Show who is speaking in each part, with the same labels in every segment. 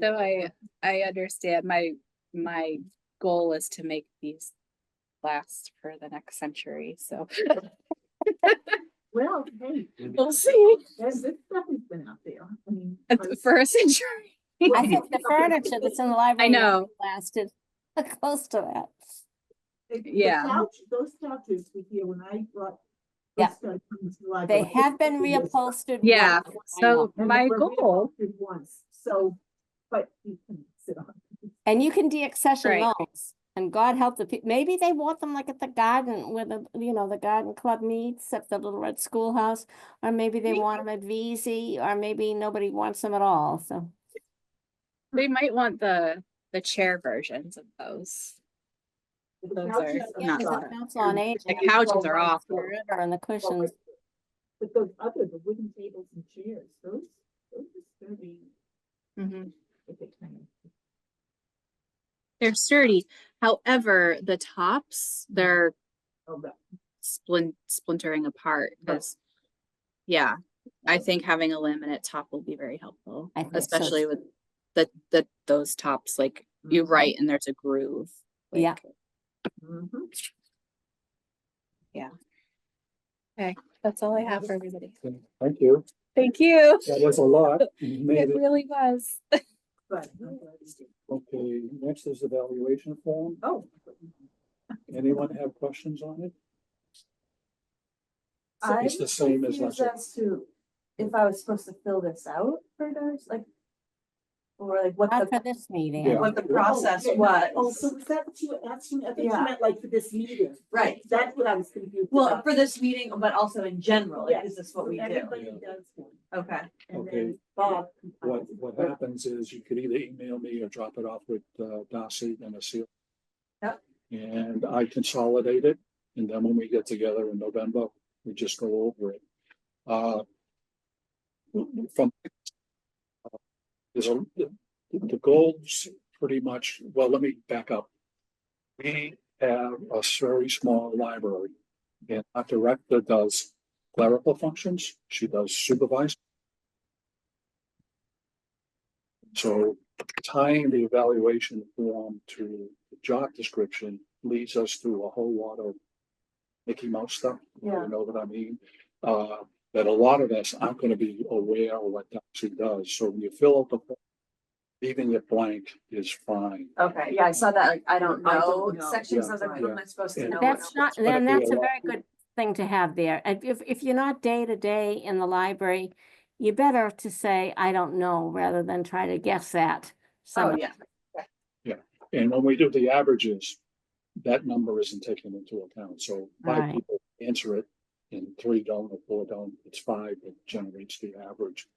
Speaker 1: So I, I understand my, my goal is to make these last for the next century, so
Speaker 2: Well, hey,
Speaker 1: we'll see.
Speaker 2: there's this stuff has been out there. I mean.
Speaker 1: For a century.
Speaker 3: I think the furniture that's in the library.
Speaker 1: know.
Speaker 3: Lasted close to that.
Speaker 2: the- the
Speaker 1: yeah.
Speaker 2: couch- Those couches were here when I brought.
Speaker 3: Yeah.
Speaker 2: those couches to the library.
Speaker 3: They have been
Speaker 2: Yes.
Speaker 3: reupholstered.
Speaker 1: Yeah,
Speaker 3: once,
Speaker 1: So
Speaker 3: I know.
Speaker 2: And they
Speaker 1: my
Speaker 2: were
Speaker 1: goal,
Speaker 2: reupholstered Once, so, but you can sit on. it.
Speaker 3: And you can deaccession
Speaker 1: Right.
Speaker 3: those. And God help the people, maybe they want them like at the garden where the, you know, the garden club meets at the Little Red Schoolhouse. Or maybe they
Speaker 1: Maybe.
Speaker 3: want them at VZ, or maybe nobody wants them at all, so.
Speaker 1: they might want the, the chair versions of those.
Speaker 2: The
Speaker 1: Those
Speaker 2: couches are
Speaker 1: are
Speaker 3: Yeah,
Speaker 1: not
Speaker 3: 'cause
Speaker 2: not-
Speaker 3: the council on
Speaker 1: The
Speaker 3: aging.
Speaker 1: couches are off.
Speaker 3: the river And the cushions,
Speaker 2: But those other, the wooden tables and chairs, those, those are sturdy,
Speaker 3: Mm-hmm.
Speaker 1: Mhm.
Speaker 2: if they can.
Speaker 1: They're sturdy. However, the tops, they're
Speaker 2: Oh, but
Speaker 1: splint, splintering apart
Speaker 2: Right.
Speaker 1: because, yeah, I think having a laminate top will be very helpful,
Speaker 3: I think so.
Speaker 1: especially with the, the, those tops, like you
Speaker 2: Mhm.
Speaker 1: write and there's a groove.
Speaker 3: Yeah.
Speaker 1: like,
Speaker 2: Mhm.
Speaker 1: That's all I have for everybody.
Speaker 4: Thank you.
Speaker 1: Thank you.
Speaker 4: That was a lot. You
Speaker 1: It
Speaker 4: made it.
Speaker 1: really was.
Speaker 2: But I'm glad you did.
Speaker 4: Okay, next is evaluation form.
Speaker 2: Oh.
Speaker 4: Anyone have questions on it?
Speaker 5: So
Speaker 4: It's the same as last
Speaker 5: confused
Speaker 4: year.
Speaker 5: as to if I was supposed to fill this out for those, like. Or like what
Speaker 3: not for
Speaker 5: the,
Speaker 3: this meeting.
Speaker 4: Yeah.
Speaker 5: what the process
Speaker 2: Oh,
Speaker 5: was.
Speaker 2: Oh, so was that what you were asking? I think you
Speaker 5: Yeah.
Speaker 2: meant like for this meeting.
Speaker 5: Right,
Speaker 2: That's what I was confused
Speaker 5: well,
Speaker 2: about.
Speaker 5: for this meeting, but also in general, like, is this what we do?
Speaker 2: Everybody does one.
Speaker 5: Okay,
Speaker 2: And
Speaker 4: Okay.
Speaker 2: then Bob.
Speaker 4: What, what happens is you could either email me or drop it off with uh, Darcy and a seal.
Speaker 5: Yep.
Speaker 4: And I consolidate it, and then when we get together in November, we just go over it. Uh, From uh, there's a, the- the goals pretty much, well, let me back up. We have a very small library, and our director does clerical functions, she does supervise. So tying the evaluation form to the job description leads us through a whole lot of Mickey Mouse stuff.
Speaker 5: Yeah.
Speaker 4: You know what I mean? Uh, that a lot of us aren't gonna be aware of what Doxy does, so when you fill out the form, leaving it blank is fine.
Speaker 5: okay, yeah, I saw that, like, I don't
Speaker 2: I
Speaker 5: know
Speaker 2: don't know.
Speaker 5: section, so I was like,
Speaker 2: Yeah.
Speaker 5: what am I supposed to
Speaker 4: Yeah.
Speaker 5: know?
Speaker 3: That's not,
Speaker 4: But
Speaker 3: then
Speaker 4: if we
Speaker 3: that's a
Speaker 4: allow
Speaker 3: very good thing to have there. And If, if you're not day to day in the library, you better to say, I don't know, rather than try to guess that.
Speaker 5: Oh,
Speaker 3: So,
Speaker 5: yeah,
Speaker 4: And when we do the averages, that number isn't taken into account, so five
Speaker 3: Right.
Speaker 4: people answer it. And three don't, or four don't, it's five that generates the average.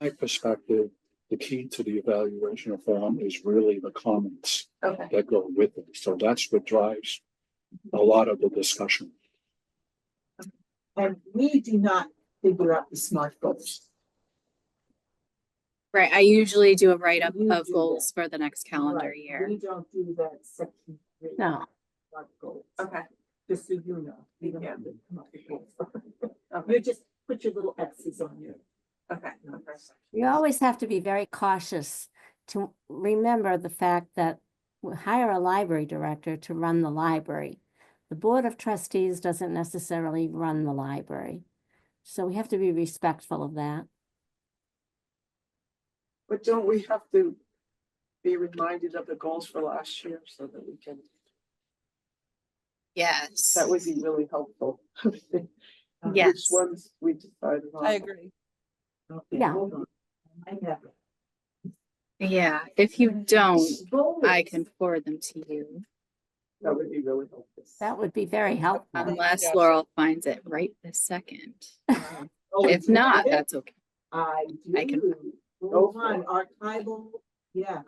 Speaker 4: My perspective, the key to the evaluation of form is really the comments
Speaker 5: okay,
Speaker 4: that go with it, so that's what drives a lot of the discussion.
Speaker 2: And we do not figure out the smart goals.
Speaker 1: Right, I usually do a write-up
Speaker 2: You
Speaker 1: of
Speaker 2: do
Speaker 1: goals for the next calendar
Speaker 2: Right.
Speaker 1: year.
Speaker 2: We don't do that section. three,
Speaker 3: no,
Speaker 2: Smart goals.
Speaker 5: okay,
Speaker 2: Just so you know. we don't
Speaker 5: Yeah.
Speaker 2: have to come up with goals. You
Speaker 5: okay,
Speaker 2: just put your little X's on your.
Speaker 5: okay.
Speaker 3: you always have to be very cautious to remember the fact that we hire a library director to run the library. The Board of Trustees doesn't necessarily run the library. So we have to be respectful of that.
Speaker 6: But don't we have to be reminded of the goals for last year so that we can,
Speaker 1: Yes.
Speaker 6: that would be really helpful.
Speaker 2: Um,
Speaker 1: Yes.
Speaker 6: Which ones we decided on.
Speaker 5: I agree.
Speaker 2: okay,
Speaker 3: Yeah.
Speaker 2: hold on. I have it.
Speaker 1: Yeah, if you don't, I
Speaker 2: Goals.
Speaker 1: can forward them to you
Speaker 6: That would be really helpful.
Speaker 3: That would be very helpful.
Speaker 1: unless
Speaker 6: Yes.
Speaker 1: Laurel finds it right this second.
Speaker 2: Um, oh, you
Speaker 1: If
Speaker 2: have
Speaker 1: not,
Speaker 2: it?
Speaker 1: that's okay.
Speaker 2: I
Speaker 1: I can-
Speaker 2: do. Go on, archival, yeah.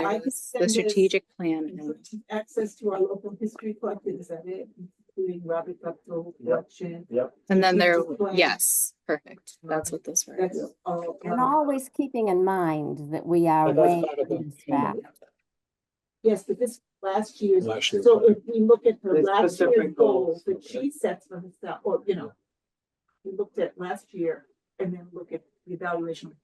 Speaker 2: Yeah, I
Speaker 1: there
Speaker 2: can
Speaker 1: was
Speaker 2: send
Speaker 1: the
Speaker 2: this-
Speaker 1: strategic plan and
Speaker 2: Access to our local history collected, is that it? Including Robert Guptill
Speaker 4: Yep.
Speaker 2: collection,
Speaker 1: And then there,
Speaker 2: strategic plan.
Speaker 1: yes, perfect. That's what those were.
Speaker 2: that's all.
Speaker 3: And
Speaker 2: um,
Speaker 3: always keeping in mind that we are
Speaker 4: But that's
Speaker 3: way
Speaker 4: part of the
Speaker 3: on this
Speaker 4: human
Speaker 3: back.
Speaker 2: Yes, but this last year's,
Speaker 4: Last year's
Speaker 2: so
Speaker 4: plan.
Speaker 2: if we look at her
Speaker 6: The
Speaker 2: last year's
Speaker 6: specific
Speaker 2: goals
Speaker 6: goals,
Speaker 2: that
Speaker 4: okay.
Speaker 2: she sets for herself, or, you know. We looked at last year and then look at the evaluation